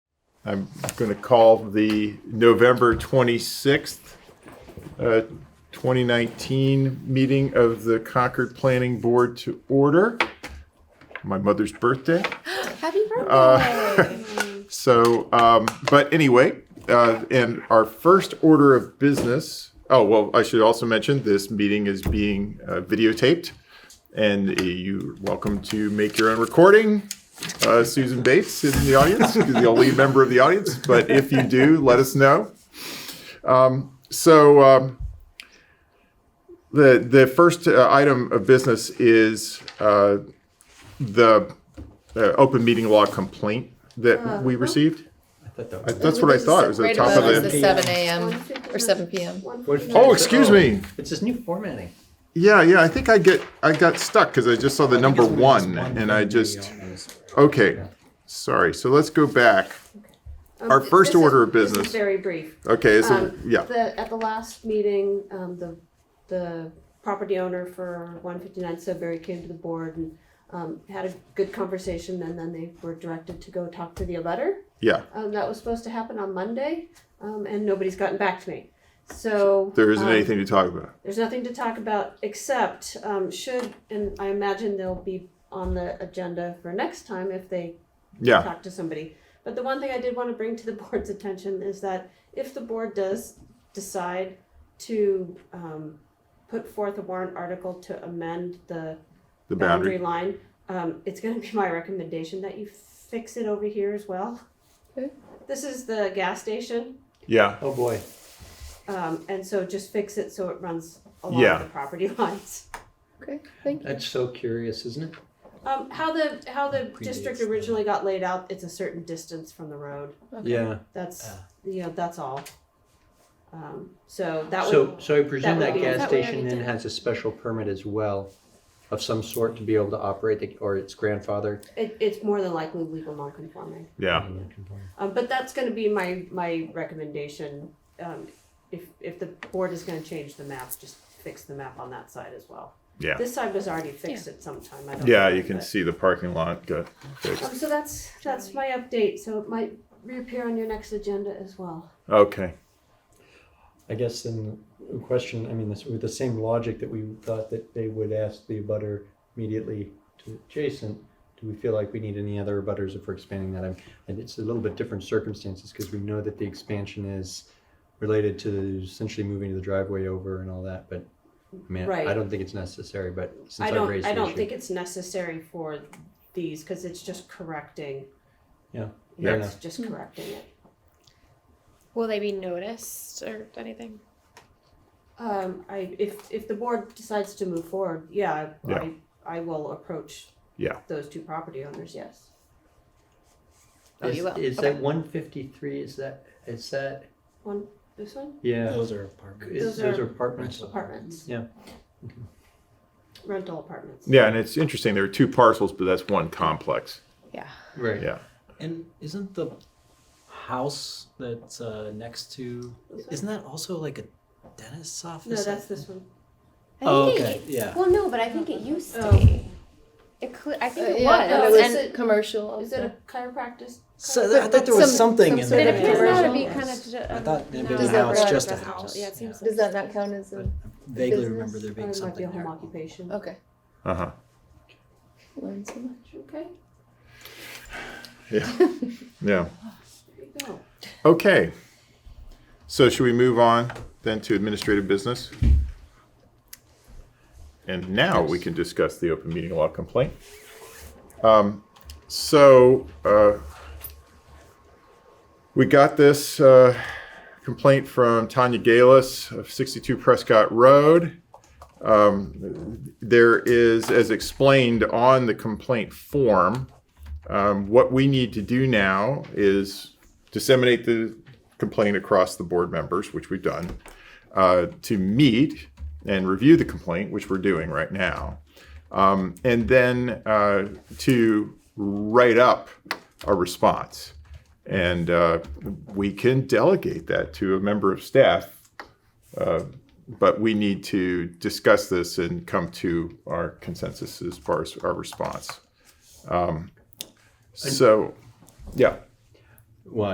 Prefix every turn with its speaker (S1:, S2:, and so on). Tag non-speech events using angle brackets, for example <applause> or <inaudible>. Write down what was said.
S1: I'm going to call the November 26th, uh, 2019 meeting of the Concord Planning Board to order. My mother's birthday.
S2: Happy birthday!
S1: Uh, So, um, but anyway, uh, and our first order of business. Oh, well, I should also mention this meeting is being uh, videotaped, and uh, you're welcome to make your own recording. Uh, Susan Bates is in the audience, <laughs> is the only member of the audience, but if you do, let us know. Um, so, um, the, the first uh, item of business is uh, the uh, open meeting law complaint
S3: Uh,
S1: that we received. I- That's what I thought. It was at the
S2: right
S1: top
S2: above
S1: of
S2: is
S1: the.
S2: the 7 a.m. or 7 p.m.
S1: <laughs> Oh, excuse me.
S4: It's this new formatting.
S1: Yeah, yeah. I think I get I got stuck because I just saw the number one, and I just okay. Sorry. So let's go back.
S3: Um,
S1: Our
S3: th-
S1: first
S3: this is-
S1: order of
S3: this is
S1: business.
S3: Very brief.
S1: Okay. So
S3: Um,
S1: yeah.
S3: the- At the last meeting, um, the, the property owner for one fifty-nine Sudbury came to the board and, um, had a good conversation and then they were directed to go talk to the abutter.
S1: Yeah.
S3: Um, that was supposed to happen on Monday, um, and nobody's gotten back to me. So.
S1: There isn't
S3: um,
S1: anything to talk about.
S3: There's nothing to talk about except, um, should, and I imagine they'll be on the agenda for next time if they
S1: Yeah.
S3: talk to somebody. But the one thing I did want to bring to the <laughs> board's attention is that if the board does decide to um, put forth a warrant article to amend the
S1: The
S3: boundary
S1: boundary.
S3: line, um, it's gonna be <laughs> my recommendation that you fix it over here as well.
S2: Okay.
S3: This is the gas station,
S1: Yeah.
S4: Oh, boy.
S3: um, and so just fix it so it runs along
S1: Yeah.
S3: the property <laughs> lines.
S2: Okay, thank you.
S4: That's so curious, isn't it?
S3: Um, how the, how the
S4: Predates
S3: district
S4: the-
S3: originally got laid out, it's a certain distance from the road.
S5: Uh,
S4: Yeah.
S3: That's
S4: Ah.
S3: you know that's all. Um, so that
S4: So,
S3: would
S4: so I presume
S3: that
S4: that
S3: would be-
S4: gas
S2: That we
S4: station
S2: already
S4: then
S2: did.
S4: has a special permit as well of some sort to be able to operate the, or its grandfather.
S3: it, it's more than likely legal non-conforming.
S1: Yeah.
S3: Um, but that's going to be my my recommendation. Um, if if the board is going to change the map, just fix the map on that side as well.
S1: Yeah.
S3: This side was already fixed at some time. I don't
S1: Yeah.
S3: know,
S1: You can
S3: but-
S1: see the parking lot got fixed.
S3: Um, so that's that's my update. So it might reappear on your next agenda as well.
S1: Okay.
S6: I guess then the question, I mean, this, with the same logic that we thought that they would ask the abutter immediately to adjacent, do we feel like we need any other abutters for expanding that? I'm- And it's a little bit different circumstances because we know that the expansion is related to essentially moving the driveway over and all that, but I mean, I-
S3: Right.
S6: I don't think it's necessary, but
S3: I
S6: since I
S3: don't
S6: raised
S3: I
S6: the
S3: don't think
S6: issue.
S3: it's necessary for these because it's just correcting.
S6: Yeah,
S3: Yeah,
S6: fair
S3: it's
S6: enough.
S3: just correcting it.
S2: Will they be noticed or anything?
S3: Um, I, if, if the board decides to move forward, yeah,
S1: Yeah.
S3: I, I will approach
S1: Yeah.
S3: those two property owners, yes.
S2: Oh, you will.
S4: Is
S2: Okay.
S4: that one fifty-three, is that, is that,
S3: One, this one,
S6: Yeah,
S5: Those are apartments.
S6: it's-
S3: Those
S6: those
S3: are
S6: are apartments.
S3: apartments.
S6: Yeah.
S3: Rental apartments.
S1: Yeah. And it's interesting. There are two parcels, but that's one complex.
S2: Yeah.
S6: Right.
S1: Yeah.
S5: And isn't the house that's uh, next to
S3: This one?
S5: isn't that also like a dentist's office?
S3: No,
S5: I
S3: that's
S5: think?
S3: this one.
S7: I
S5: Oh,
S7: think
S5: okay,
S7: It,
S5: yeah.
S7: Well, no, but I think it used to
S3: Oh.
S7: be. It cl- I think it was.
S3: no,
S2: Uh, and,
S3: it's
S2: and
S3: a-
S2: commercial.
S3: Is it a chiropractic?
S5: So th- I thought there was
S2: Some-
S5: something
S2: some
S5: in
S2: sort
S7: but
S5: there.
S7: it
S2: Yeah.
S7: appears now to
S2: Yeah.
S7: be
S2: Yes.
S7: kind of.
S5: I thought maybe
S2: Does
S5: now
S2: that
S5: it's
S2: work?
S5: just a
S7: residential.
S5: house.
S7: Yeah, it seems.
S2: Does that not count as a?
S5: Vaguely
S2: business?
S5: remember there
S3: Or it might
S5: being
S3: be a
S5: something
S3: home
S5: there.
S3: occupation.
S2: Okay.
S1: Uh huh.
S2: Learn so much.
S3: Okay,
S1: Yeah.
S3: there you go.
S1: Okay. So should we move on then to administrative business? And now we can discuss the open meeting law complaint. Um, So uh, we got this uh, complaint from Tanya Galis of 62 Prescott Road. Um, There is, as explained on the complaint form, um, what we need to do now is disseminate the complaint across the board members, which we've done, uh, to meet and review the complaint, which we're doing right now, um, and then uh, to write up a response. And uh, we can delegate that to a member of staff, uh, but we need to discuss this and come to our consensus as far as our response. Um, so, yeah.
S6: Well,